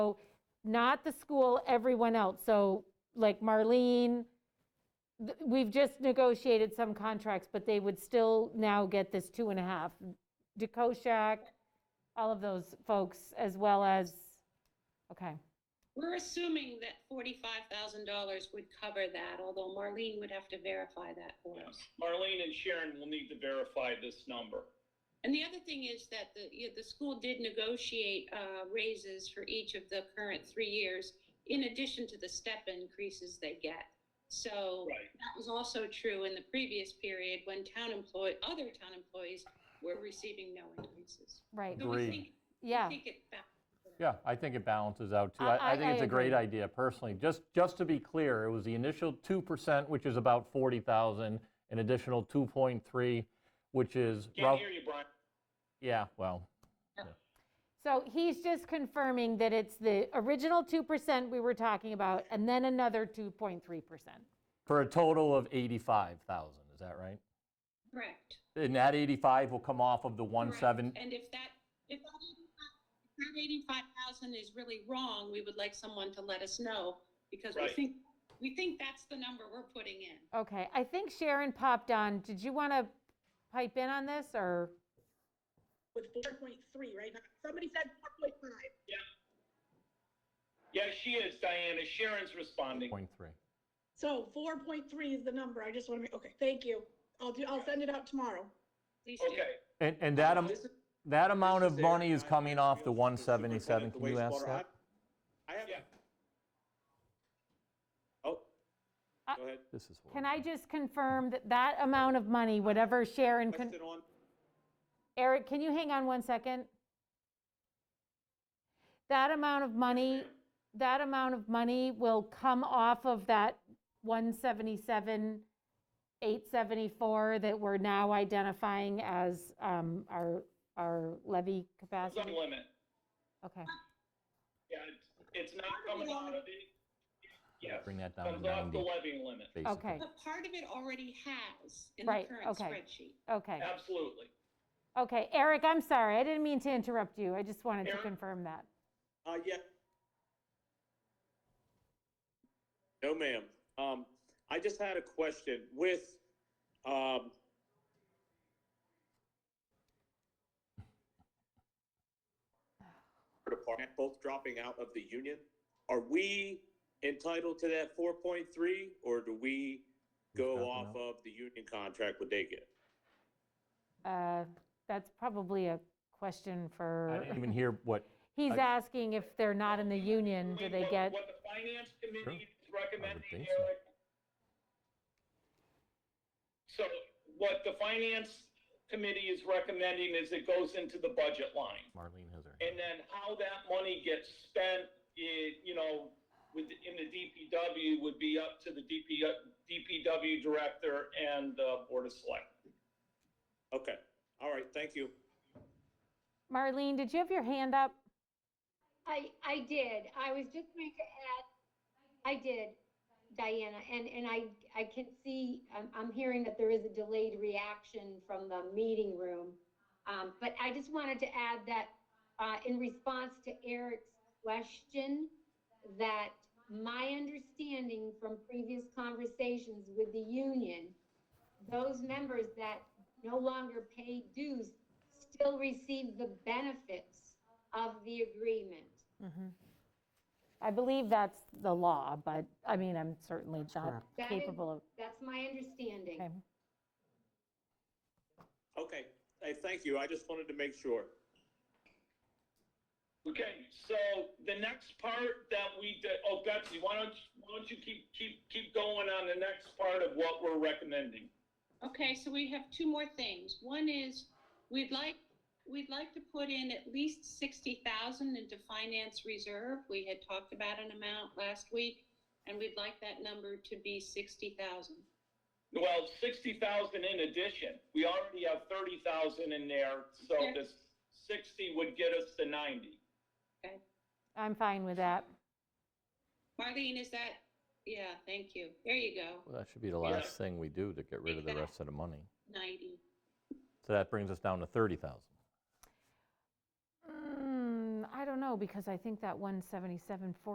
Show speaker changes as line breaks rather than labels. not the school, everyone else. So like Marlene, th- we've just negotiated some contracts, but they would still now get this two and a half. DeKoschak, all of those folks, as well as, okay,
We're assuming that forty-five thousand dollars would cover that, although Marlene would have to verify that for us.
Marlene and Sharon will need to verify this number.
And the other thing is that the, you know, the school did negotiate, uh, raises for each of the current three years in addition to the step increases they get. So
Right.
that was also true in the previous period when town employ, other town employees were receiving no increases.
right,
So we
Agreed.
think-
yeah.
We think it back.
Yeah, I think it balances out too.
I-
I,
I-
I think
I
it's a great
agree.
idea personally. Just, just to be clear, it was the initial 2%, which is about 40,000, an additional 2.3, which is,
Can't
rough-
hear you, Brian.
yeah, well,
So he's just confirming that it's the original 2% we were talking about, and then another 2.3%.
for a total of 85,000, is that right?
Correct.
And that 85 will come off of the
Correct.
17,
And if that, if that 85 if that eighty-five thousand is really wrong, we would like someone to let us know, because we
Right.
think, we think that's the number we're putting in.
Okay, I think Sharon popped on. Did you want to pipe in on this, or?
with four point three, right? Not- Somebody said four point five.
Yeah, she is, Diana. Sharon's responding.
0.3.
So four point three is the number. I just want to make, okay, thank you. I'll do, I'll send it out tomorrow.
Please do.
Okay.
And, and that, am-
This is-
that amount
this
of
Aaron.
money is
I'm
coming off the
Fields,
177,
superintendent
can you
of
ask
wastewater.
that?
I I have,
Yeah.
oh,
I-
go ahead.
This is
Can
horrible.
I just confirm that that amount of money, whatever Sharon, con-
Question on,
Eric, can you hang on one second? That amount of money, that amount of money will come off of that 177, 874 that we're now identifying as um, our, our levy
It's on
capacity?
limit.
Okay,
Yeah, it's, it's not coming out of the, yes.
Bring that down to
Comes off the
90.
levy limit.
basically.
okay,
But part of it already has in the
Right,
current
okay.
spreadsheet.
okay,
Absolutely.
okay. Eric, I'm sorry, I didn't mean to interrupt you, I just wanted to
Eric?
confirm that.
uh, yeah. No, ma'am. Um, I just had a question with, um, department both dropping out of the union. Are we entitled to that four point three or do we go
dropping
off
out?
of the union contract what they get?
Uh, That's probably a question
I
for,
didn't even hear what,
he's
I-
asking if they're not in the union, do they
What-
get?
What the finance committee is recommending,
think so.
Eric. So what the finance committee is recommending is it goes into the budget line.
Marlene has her. hand.
And then how that money gets spent, i- you know, with, in the DPW would be up to the DP, DPW director and the board of select.
Okay, all right, thank you.
Marlene, did you have your hand up?
I, I did. I was just going to add, I did, Diana, and, and I, I can see, I'm, I'm hearing that there is a delayed reaction from the meeting room. Um, but I just wanted to add that, uh, in response to Eric's question, that my understanding from previous conversations with the union, those members that no longer pay dues still receive the benefits of the agreement.
Mm-hmm. I believe that's the law, but, I mean, I'm certainly not
That is-
capable of,
That's my understanding.
okay.
Okay, hey, thank you. I just wanted to make sure.
Okay, so the next part that we did, oh Betsy, why don't, you- why don't you keep, keep, keep going on the next part of what we're recommending?
Okay, so we have two more things. One is, we'd like, we'd like to put in at least sixty thousand into finance reserve. We had talked about an amount last week, and we'd like that number to be sixty thousand.
Well, sixty thousand in addition, we already have thirty thousand in there, so
Okay.
this sixty would get us to ninety.
I'm fine with that.
Marlene, is that, yeah, thank you. There you go,
Well, that should be the
Yeah.
last thing we do to get rid of the rest of the money.
ninety.
So that brings us down to 30,000.
Mm, I don't don't know, because I think that 177,